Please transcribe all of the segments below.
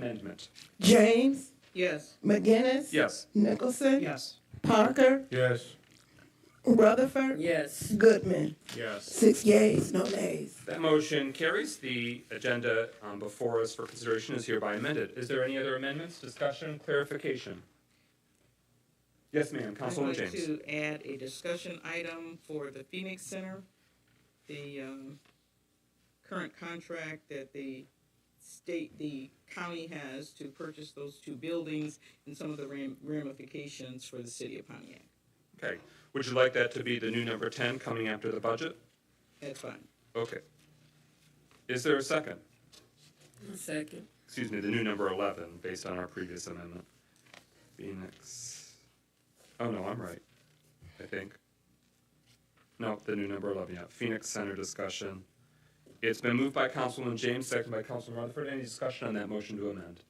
amendment. James, Yes. McGinnis. Yes. Nicholson. Yes. Parker, Yes. Rutherford. Yes. Goodman. Yes. Six yeas, no nays. That motion carries. The agenda um, before us for consideration is hereby amended. Is there any other amendments, discussion, clarification? Yes, ma'am, I'd Councilwoman like James. to add a discussion item for the Phoenix Center. The, um, current contract that the state, the county has to purchase those two buildings and some of the ram- ramifications for the city of Pontiac. Okay. Would you like that to be the new number 10 coming after the budget? That's fine. Okay. Is there a second? Second. excuse me, the new number 11, based on our previous amendment. Phoenix, oh no, I'm right, I think. No, the new number 11, yeah, Phoenix Center discussion. It's been moved by Councilman James, seconded by Councilman Rutherford. Any discussion on that motion to amend?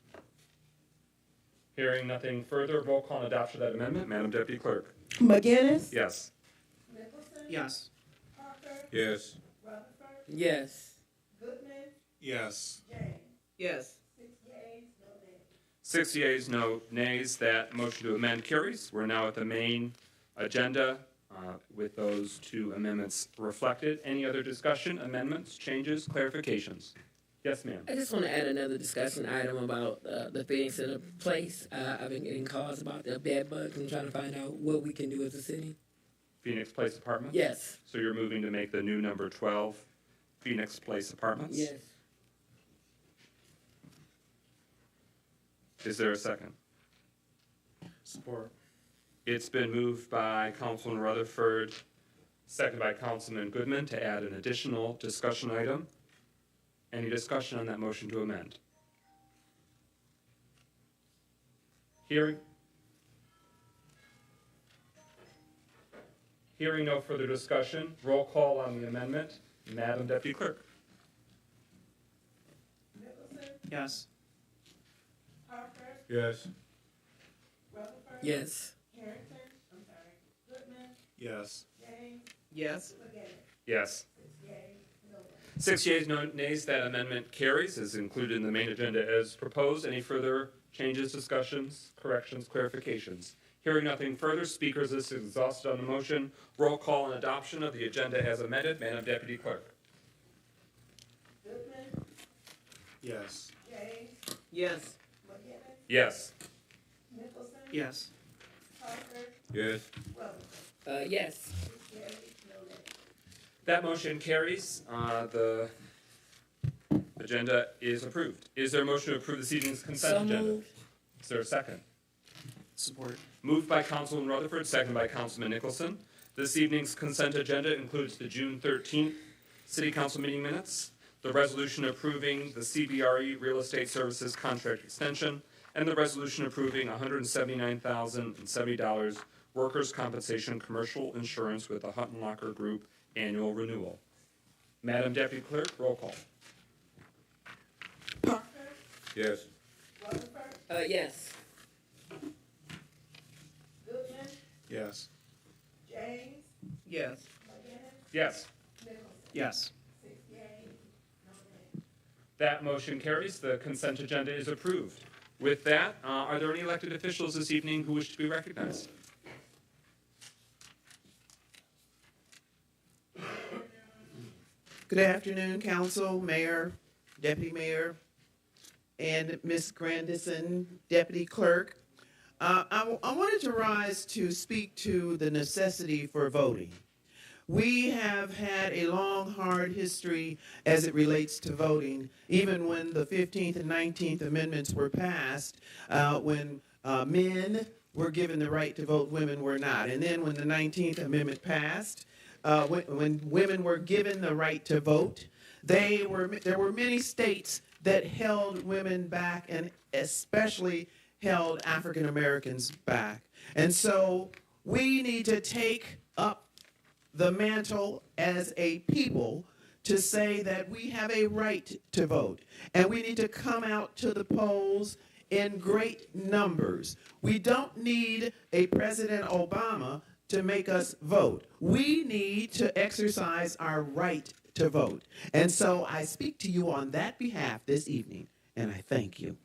Hearing nothing further, roll call on adoption of that amendment. Madam Deputy Clerk? McGinnis. Yes. Yes. Yes. Yes. Yes. Yes. Six yeas, no nays. That motion to amend carries. We're now at the main agenda uh, with those two amendments reflected. Any other discussion, amendments, changes, clarifications? Yes, ma'am. I just want to add another discussion item about uh, the Phoenix Center place. Uh, I've been getting calls about the bed bugs and trying to find out what we can do as a city. Phoenix Place Apartments? Yes. So you're moving to make the new number 12 Phoenix Place Apartments? Yes. Is there a second? Support. It's been moved by Councilman Rutherford, seconded by Councilman Goodman to add an additional discussion item. Any discussion on that motion to amend? Hearing? Hearing no further discussion, roll call on the amendment. Madam Deputy Clerk? Yes. Yes. Yes. Yes. Yes. Yes. Six yeas, no nays, that amendment carries, is included in the main agenda as proposed. Any further changes, discussions, corrections, clarifications? Hearing nothing further, speakers list is exhausted on the motion. Roll call on adoption of the agenda as amended. Madam Deputy Clerk. Yes. Yes. Yes. Yes. Yes. Uh, yes. That motion carries. Uh, The agenda is approved. Is there a motion to approve this evening's So consent agenda? moved. Is there a second? Support. Moved by Councilman Rutherford, second by Councilman Nicholson. This evening's consent agenda includes the June 13th City Council meeting minutes, the resolution approving the CBRE E Real Estate Services contract extension, and the resolution approving $179,070 workers' compensation commercial insurance with the Hutton Locker Group annual renewal. Madam Deputy Clerk, roll call. Yes. Uh, yes. Yes. Yes. Yes. Yes. That motion carries. The consent agenda is approved. With that, uh, are there any elected officials this evening who wish to be recognized? Good afternoon, council, mayor, deputy mayor, and Ms. Grandison, deputy clerk. Uh, I, I wanted to rise to speak to the necessity for voting. We have had a long, hard history as it relates to voting. Even when the 15th and 19th Amendments were passed, uh, when uh, men were given the right to vote, women were not. And then when the 19th Amendment passed, uh, when, when women were given the right to vote, they were there were many states that held women back and especially held African Americans back. And so we need to take up the mantle as a people to say that we have a right to vote and we need to come out to the polls in great numbers. We don't need a President Obama to make us vote. We need to exercise our right to vote. And so I speak to you on that behalf this evening and I thank you.